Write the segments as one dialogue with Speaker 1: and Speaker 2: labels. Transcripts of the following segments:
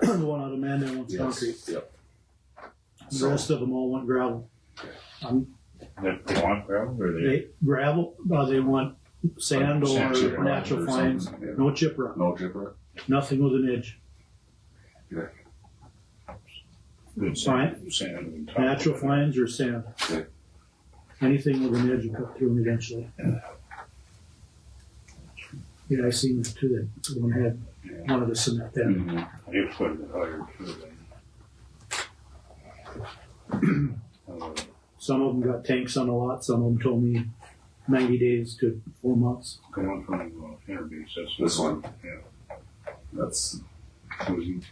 Speaker 1: the one out of Mandan one's concrete.
Speaker 2: Yep.
Speaker 1: The
Speaker 2: So-
Speaker 1: rest of them all want gravel. Um,
Speaker 3: They they want gravel or they?
Speaker 1: they gravel. Uh, they want sand or
Speaker 2: Sand chip rock
Speaker 1: natural
Speaker 2: or
Speaker 1: fines.
Speaker 2: something, yeah.
Speaker 1: No chip rock.
Speaker 2: No jibber.
Speaker 1: Nothing with an edge.
Speaker 3: Good
Speaker 1: Fine.
Speaker 3: sand- Sand. and top.
Speaker 1: Natural fines or sand.
Speaker 2: Okay.
Speaker 1: Anything with an edge will cut through them eventually. Yeah, I seen two that one had
Speaker 3: Yeah.
Speaker 1: one of the cement that.
Speaker 2: Mm.
Speaker 3: They put it higher too then. Uh,
Speaker 1: Some of them got tanks on a lot. Some of them told me 90 days to four months.
Speaker 3: Going from uh, Interbase, that's.
Speaker 2: This one.
Speaker 3: Yeah.
Speaker 2: That's
Speaker 3: Susan.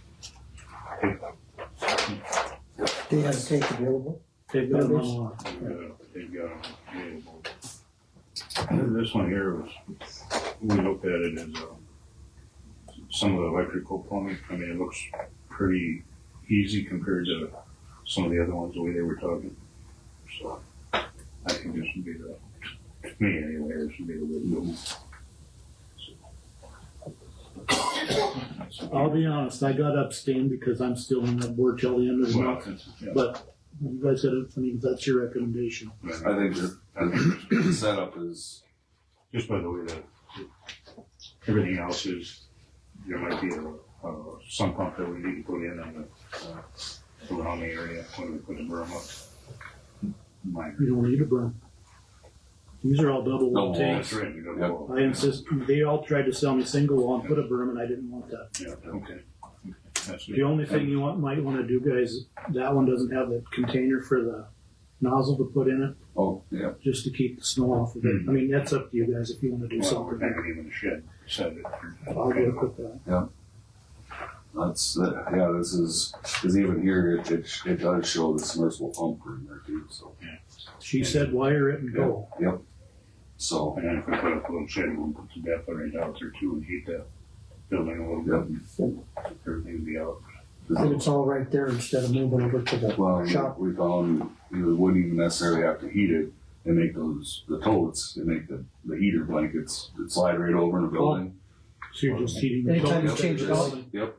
Speaker 4: Do you have a tank available?
Speaker 1: They've got them on a lot.
Speaker 3: They got- they got them available. This one here was, we looked at it as, uh, some of the electrical plumbing, I mean, it looks pretty easy compared to some of the other ones, the way they were talking. So, I think this would be the, to me anyway, this would be the way to go. So-
Speaker 1: I'll be honest, I got abstained because I'm still on that board till the end of the
Speaker 3: Well,
Speaker 1: month.
Speaker 3: that's- yeah.
Speaker 1: But you guys said, it, I mean, that's your recommendation.
Speaker 2: I think the-
Speaker 3: I think it's-
Speaker 2: the setup is
Speaker 3: just by the way that everything else is, there might be a, a sump pump that we need to put in on the, uh, around the area when we put the berm up. Minor.
Speaker 1: You don't need a berm. These are all double
Speaker 2: No
Speaker 1: wall
Speaker 3: That's
Speaker 1: tanks.
Speaker 3: right, you got
Speaker 2: Yep.
Speaker 3: the wall.
Speaker 1: I insist, they all tried to sell me single wall and put a berm and I didn't want that.
Speaker 3: Yeah, okay. That's
Speaker 1: The only thing you want, might wanna do guys, that one doesn't have the container for the nozzle to put in it,
Speaker 2: oh yeah.
Speaker 1: just to keep the snow off of it. I mean, that's up to you guys if you wanna do
Speaker 3: Well, we're
Speaker 1: something.
Speaker 3: not gonna even shed, set it.
Speaker 1: I'll work with that.
Speaker 2: That's uh, yeah. This is because even here it, it sh- it does show the submersible pump in there too. So
Speaker 1: She said wire it and go.
Speaker 2: so
Speaker 3: And then if we put up a little shed, we'll put some backlight out there too and heat that building a little bit. and Everything will be out.
Speaker 4: And it's all right there instead of moving over to the
Speaker 2: Well,
Speaker 4: shop.
Speaker 2: we found you know, wouldn't even necessarily have to heat it. They make those the totes. They make the, the heater blankets that slide right over in the building.
Speaker 1: So you're just heating the
Speaker 4: Anytime you
Speaker 2: Yep,
Speaker 4: change it out.
Speaker 2: Yep.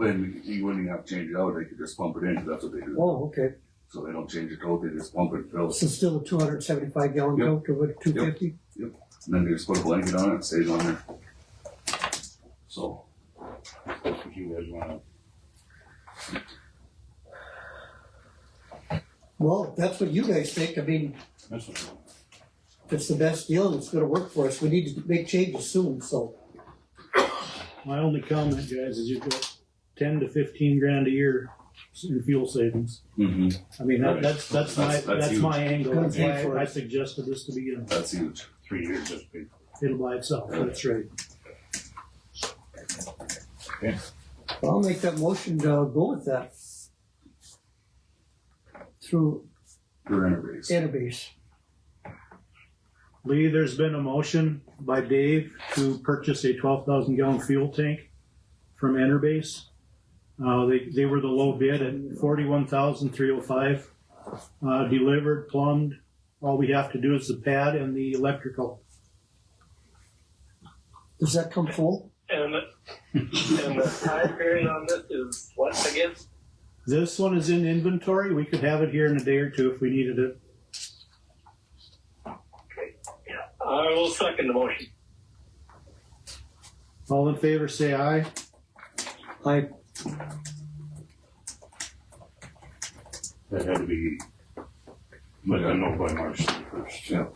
Speaker 2: And you wouldn't even have to change it out. They could just pump it in. 'cause That's what they do.
Speaker 4: Oh, okay.
Speaker 2: So they don't change the tote. They just pump it and fill it.
Speaker 4: So still a two hundred seventy-five gallon
Speaker 2: Yep.
Speaker 4: tank or two fifty?
Speaker 2: And then they just put a blanket on it. and It stays on there. So
Speaker 3: If you guys wanna,
Speaker 4: Well, if that's what you guys think. I mean,
Speaker 3: that's what.
Speaker 4: if it's the best deal and it's gonna work for us, we need to make changes soon, so.
Speaker 1: My only comment, guys, is you've got ten to fifteen grand a year in fuel savings.
Speaker 2: hmm
Speaker 1: I mean, that,
Speaker 2: Right.
Speaker 1: that's, that's my,
Speaker 2: That's- that's
Speaker 1: that's my angle,
Speaker 4: Gonna
Speaker 1: that's
Speaker 4: pay
Speaker 1: why
Speaker 4: for it.
Speaker 1: I suggested this to begin with.
Speaker 2: that's huge.
Speaker 3: three years that's big.
Speaker 1: It'll by itself, that's right.
Speaker 4: I'll make that motion to go with that. Through
Speaker 2: They're in a race.
Speaker 4: Enerbase.
Speaker 1: Lee, there's been a motion by Dave to purchase a twelve thousand gallon fuel tank from Enerbase. Uh, they, they were the low bid at forty-one thousand three oh five. Uh, delivered, plumbed, all we have to do is the pad and the electrical.
Speaker 4: Does that come full?
Speaker 5: And the, and the time period on this is what again?
Speaker 1: This one is in inventory, we could have it here in a day or two if we needed it.
Speaker 5: I will second the motion.
Speaker 1: All in favor, say aye.
Speaker 4: I,
Speaker 3: That had to be, let them know by March first.
Speaker 2: Yeah.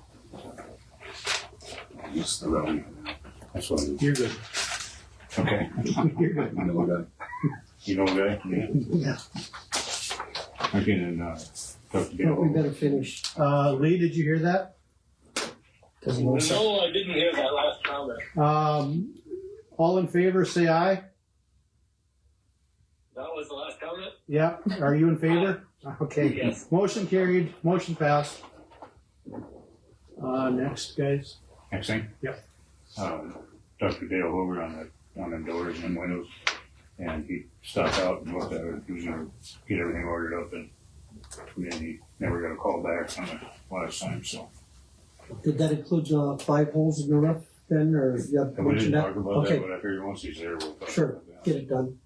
Speaker 2: Just the rally.
Speaker 3: That's what it
Speaker 1: You're good.
Speaker 3: is. Okay.
Speaker 1: You're good.
Speaker 2: You know that.
Speaker 3: You know that? Yeah. I can, uh, talk to
Speaker 4: we
Speaker 3: Dale.
Speaker 4: better finish.
Speaker 1: Uh, Lee, did you hear that?
Speaker 5: No, I didn't hear that last comment.
Speaker 1: Um, all in favor, say aye.
Speaker 5: That was the last comment?
Speaker 1: Yeah, are you in favor? Okay.
Speaker 5: Yes.
Speaker 1: Motion carried, motion passed. Uh, next, guys.
Speaker 3: Next thing?
Speaker 1: Yep.
Speaker 3: Um, talked to Dale over on the, on the doors and windows, and he stopped out and looked at it, he was gonna get everything ordered up and and he never got a call back on it last time, so.
Speaker 4: Did that include the five holes in the roof then, or you have
Speaker 3: And we didn't
Speaker 4: mentioned that?
Speaker 3: talk about that,
Speaker 4: Okay,
Speaker 3: but I figured once he's there, we'll talk about that.
Speaker 4: Sure. get it done.